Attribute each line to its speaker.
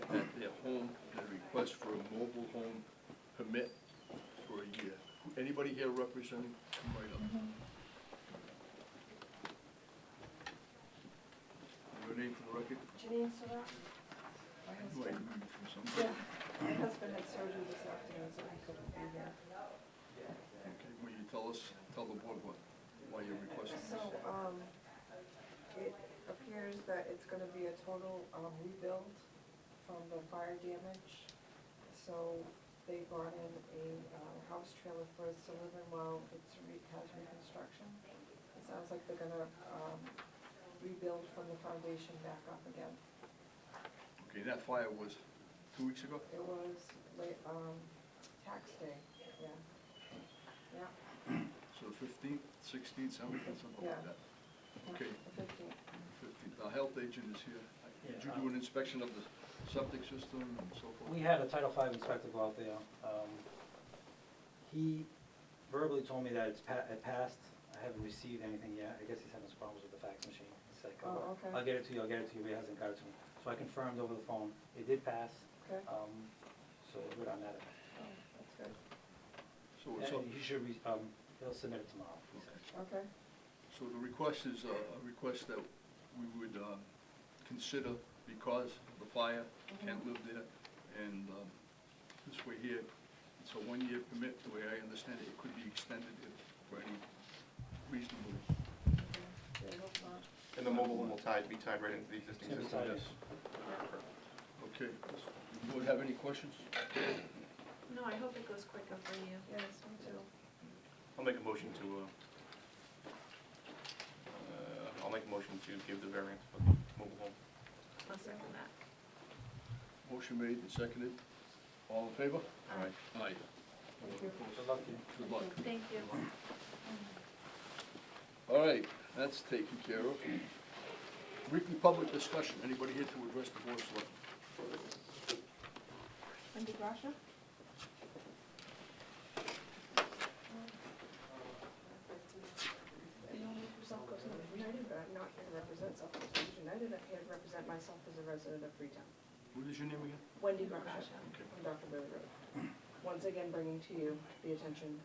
Speaker 1: request for a mobile home permit for a year. Anybody here representing, come right up. Your name for the record?
Speaker 2: Janine Surratt, my
Speaker 1: Wait,
Speaker 2: husband.
Speaker 1: from somebody.
Speaker 2: Yeah, my husband had surgery this afternoon, so he couldn't be here.
Speaker 1: Okay, will you tell us, tell the board what, why you're requesting
Speaker 2: So,
Speaker 1: this?
Speaker 2: um, it appears that it's gonna be a total, um, rebuild from the fire damage. So they brought in a, uh, house trailer for us to live in while it's re, has reconstruction. It sounds like they're gonna, um, rebuild from the foundation back up again.
Speaker 1: Okay, that fire was two weeks ago?
Speaker 2: It was late, um, tax day, yeah. Yeah,
Speaker 1: So fifteenth, sixteenth, seventeenth, something like
Speaker 2: Yeah.
Speaker 1: that. Okay,
Speaker 2: the fifteenth.
Speaker 1: fifteenth, the health agent is here. Did you
Speaker 3: Yeah,
Speaker 1: do
Speaker 3: um,
Speaker 1: an inspection of the septic system and so forth?
Speaker 3: We had a Title V inspector go out there. Um, He verbally told me that it's pa- it passed. I haven't received anything yet. I guess he's having some problems with the fax machine. He's like,
Speaker 2: Oh,
Speaker 3: "I'll-
Speaker 2: okay.
Speaker 3: I'll get it to you, I'll get it to you, but he hasn't got it to me. So I confirmed over the phone, it did pass,
Speaker 2: Okay,
Speaker 1: Uh.
Speaker 2: oh,
Speaker 3: um, so we're good on that.
Speaker 2: that's good,
Speaker 1: So it's up,
Speaker 3: And he should, re- um, he'll submit it tomorrow, he said.
Speaker 2: okay,
Speaker 1: so the request is uh, a request that we would um, consider because of the fire,
Speaker 4: Mm-hmm.
Speaker 1: can't live there. And um, this way here, it's a one-year permit, the way I understand it, it could be extended if, for any reasonable.
Speaker 2: yeah, hope not.
Speaker 5: And the mobile one will tie, be tied right into the existing
Speaker 3: It's gonna be
Speaker 5: system?
Speaker 3: tied in.
Speaker 1: Okay, do you have any questions?
Speaker 4: No, I hope it goes quicker for you.
Speaker 2: Yes, me too.
Speaker 5: I'll make a motion to, uh, uh, I'll make a motion to give the variance for the mobile home.
Speaker 4: I'll second that.
Speaker 1: Motion made and seconded. All in favor?
Speaker 4: Aye.
Speaker 1: Aye.
Speaker 2: Thank you.
Speaker 3: Good luck to you.
Speaker 1: Good luck.
Speaker 4: Thank you.
Speaker 1: All right, that's taken care of. Weekly public discussion, anybody here to address the board of selectmen?
Speaker 2: Wendy Grasha? The only South Coast Neighbors United, but I'm not here to represent South Coast Neighbors United, I'm here to represent myself as a resident of Freetown.
Speaker 1: What is your name again?
Speaker 2: Wendy Grasha,
Speaker 1: Okay.
Speaker 2: from Dr. Billy Road. Once again, bringing to you the attention